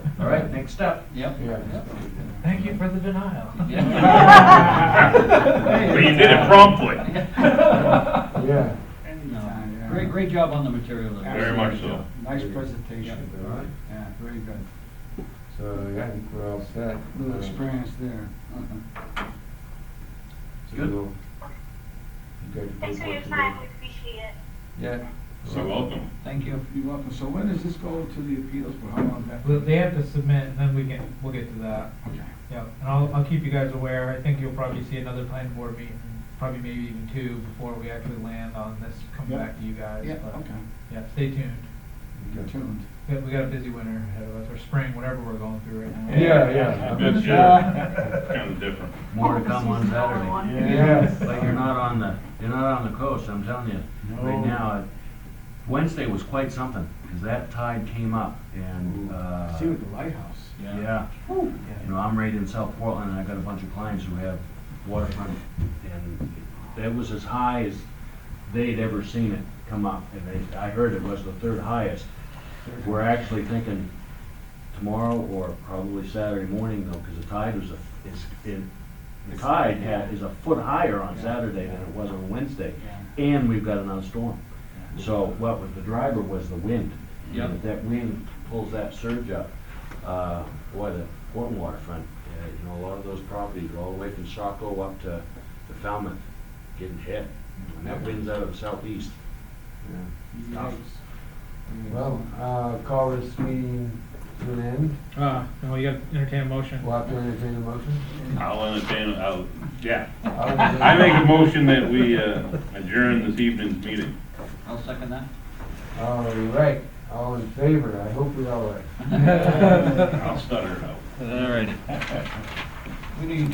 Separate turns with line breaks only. right, next step. Yep.
Yeah.
Thank you for the denial.
Yeah.
But you did it promptly.
Yeah.
Anytime, yeah.
Great, great job on the material there.
Very much so.
Nice presentation.
All right.
Yeah, very good.
So, yeah, I think we're all set.
Little
Uh,
experience there. Uh-huh.
so
Good.
we'll- you guys
Thanks
do
for your
what you
time,
do.
we appreciate it.
Yeah.
So welcome.
Thank you.
You're welcome. So when does this go to the appeals board? How long that?
Well, They have to submit, and then we can, we'll get to that.
Okay.
Yeah, and I'll, I'll keep you guys aware. I think you'll probably see another planning board meeting, probably maybe even two, before we actually land on this, coming
Yeah.
back to you guys.
Yeah,
but,
okay.
Yeah, stay tuned.
Get
Okay.
tuned.
We got- We got a busy winter ahead of us, or spring, whatever we're going through right now.
Yeah, yeah.
I bet you, kind of different.
More to come on Saturday.
Yes.
But you're not on the, you're not on the coast, I'm telling you. Right now, it- Wednesday was quite something, because that tide came up and, uh,
See with the lighthouse.
yeah. You know, I'm right in South Portland, and I got a bunch of clients who have waterfront, and that was as high as they'd ever seen it come up. And they, I heard it was the third highest. We're actually thinking tomorrow or probably Saturday morning though, because the tide was a, is, it, the tide had, is a foot higher on Saturday than it was on Wednesday. And we've got another storm. So what was the driver was the wind.
Yeah.
And if That wind pulls that surge up, uh, boy, the Portland waterfront, uh, you know, a lot of those properties are all the way from Saco up to to Falmouth getting hit. And that wind's out of the southeast.
Yeah.
Yikes.
Well, uh, call this meeting to an end.
Uh, no, you got to entertain a motion.
We'll have to entertain a motion.
I'll entertain, I'll, yeah.
I
I make a motion that we uh, adjourn this evening's meeting.
I'll second that.
All right, all in favor, I hope we all are.
I'll stutter it out.
All right. We need